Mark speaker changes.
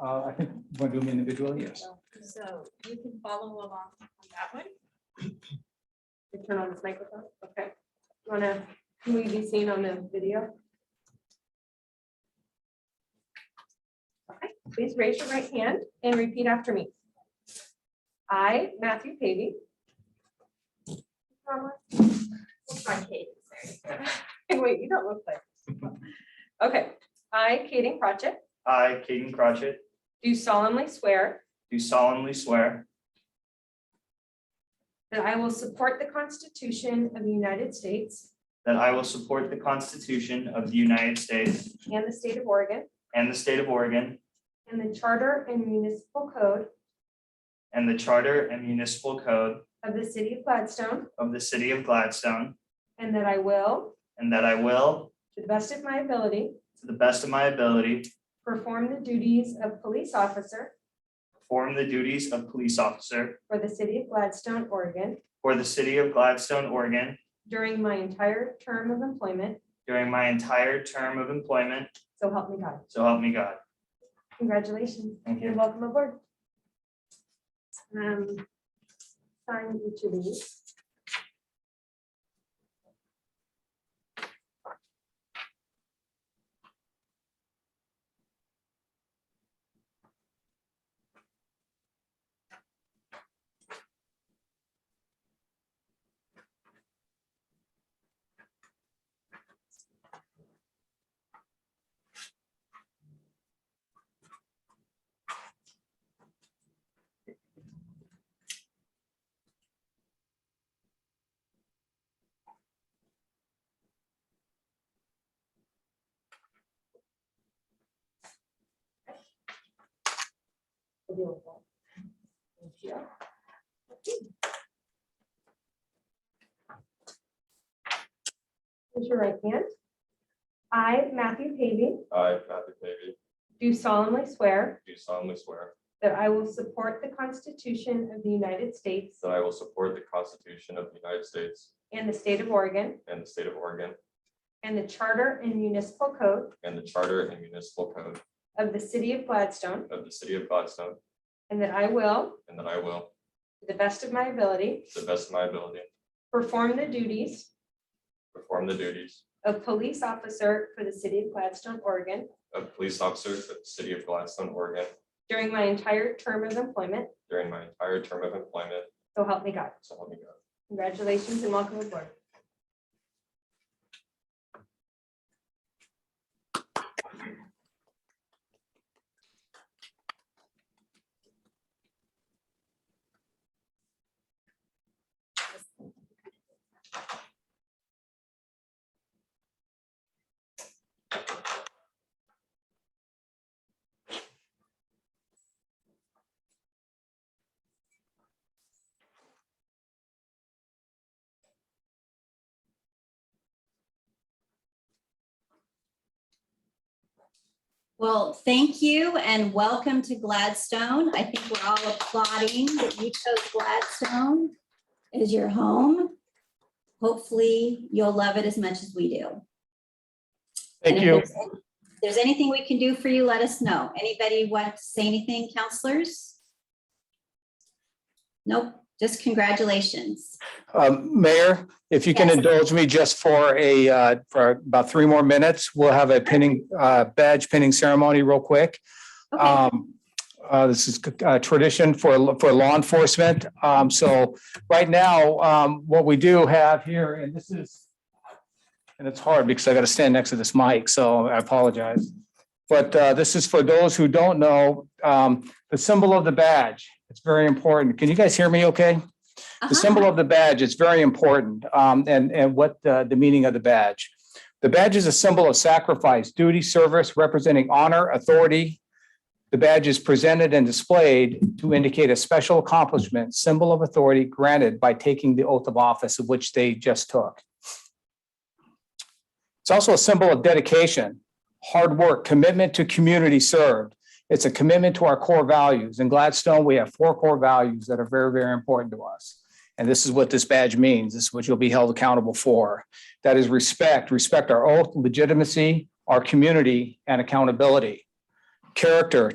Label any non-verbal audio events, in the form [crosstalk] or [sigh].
Speaker 1: Uh, I think, want to do them individually? Yes.
Speaker 2: So you can follow along on that one.
Speaker 3: You Turn on this microphone, okay. Wanna, can we be seen on the video? Okay, please raise your right hand and repeat after me. I, Matthew Pavy. Looks like Katie, sorry. [laughs] Wait, you don't look like. Okay, I, Katie Pratchett,
Speaker 4: I, Caden Crotchet,
Speaker 3: do solemnly swear
Speaker 4: do solemnly swear
Speaker 3: that I will support the Constitution of the United States
Speaker 4: that I will support the Constitution of the United States
Speaker 3: and the state of Oregon
Speaker 4: and the state of Oregon
Speaker 3: and the Charter and Municipal Code
Speaker 4: and the Charter and Municipal Code
Speaker 3: of the City of Gladstone,
Speaker 4: of the City of Gladstone,
Speaker 3: and that I will,
Speaker 4: and that I will,
Speaker 3: to the best of my ability,
Speaker 4: to the best of my ability,
Speaker 3: perform the duties of police officer
Speaker 4: perform the duties of police officer
Speaker 3: for the City of Gladstone, Oregon
Speaker 4: for the City of Gladstone, Oregon
Speaker 3: during my entire term of employment,
Speaker 4: during my entire term of employment,
Speaker 3: so help me God.
Speaker 4: so help me God.
Speaker 3: Congratulations
Speaker 4: Thank you.
Speaker 3: and welcome aboard. Um, Sign each of these. available. Thank you. Raise your right hand. I, Matthew Pavey,
Speaker 5: I, Matthew Pavey,
Speaker 3: do solemnly swear
Speaker 5: do solemnly swear
Speaker 3: that I will support the Constitution of the United States
Speaker 5: that I will support the Constitution of the United States
Speaker 3: and the state of Oregon
Speaker 5: and the state of Oregon
Speaker 3: and the Charter and Municipal Code
Speaker 5: and the Charter and Municipal Code
Speaker 3: of the City of Gladstone,
Speaker 5: of the City of Gladstone,
Speaker 3: and that I will,
Speaker 5: and that I will,
Speaker 3: to the best of my ability,
Speaker 5: to the best of my ability,
Speaker 3: perform the duties
Speaker 5: perform the duties
Speaker 3: of police officer for the City of Gladstone, Oregon
Speaker 5: of police officer for the City of Gladstone, Oregon
Speaker 3: during my entire term of employment,
Speaker 5: during my entire term of employment,
Speaker 3: so help me God.
Speaker 5: so help me God.
Speaker 3: Congratulations and welcome aboard.
Speaker 6: Well, thank you and welcome to Gladstone. I think we're all applauding that you chose Gladstone as your home. Hopefully, you'll love it as much as we do.
Speaker 7: Thank
Speaker 6: And if
Speaker 7: you.
Speaker 6: there's- If there's anything we can do for you, let us know. Anybody want to say anything, counselors? Nope, just congratulations.
Speaker 7: Um, Mayor, if you can
Speaker 6: Yes.
Speaker 7: indulge me just for a, uh, for about three more minutes, we'll have a pinning, uh, badge pinning ceremony real quick.
Speaker 6: Okay,
Speaker 7: Um, uh, this is a tradition for, for law enforcement. Um, so right now, um, what we do have here, and this is, and it's hard because I got to stand next to this mic, so I apologize. But, uh, this is for those who don't know, um, the symbol of the badge. It's very important. Can you guys hear me okay?
Speaker 6: uh-huh.
Speaker 7: The symbol of the badge is very important um, and, and what uh, the meaning of the badge. The badge is a symbol of sacrifice, duty, service, representing honor, authority. The badge is presented and displayed to indicate a special accomplishment, symbol of authority granted by taking the oath of office of which they just took. It's also a symbol of dedication, hard work, commitment to community served. It's a commitment to our core values. In Gladstone, we have four core values that are very, very important to us. And this is what this badge means. This is what you'll be held accountable for. That is respect, respect our oath, legitimacy, our community, and accountability. Character,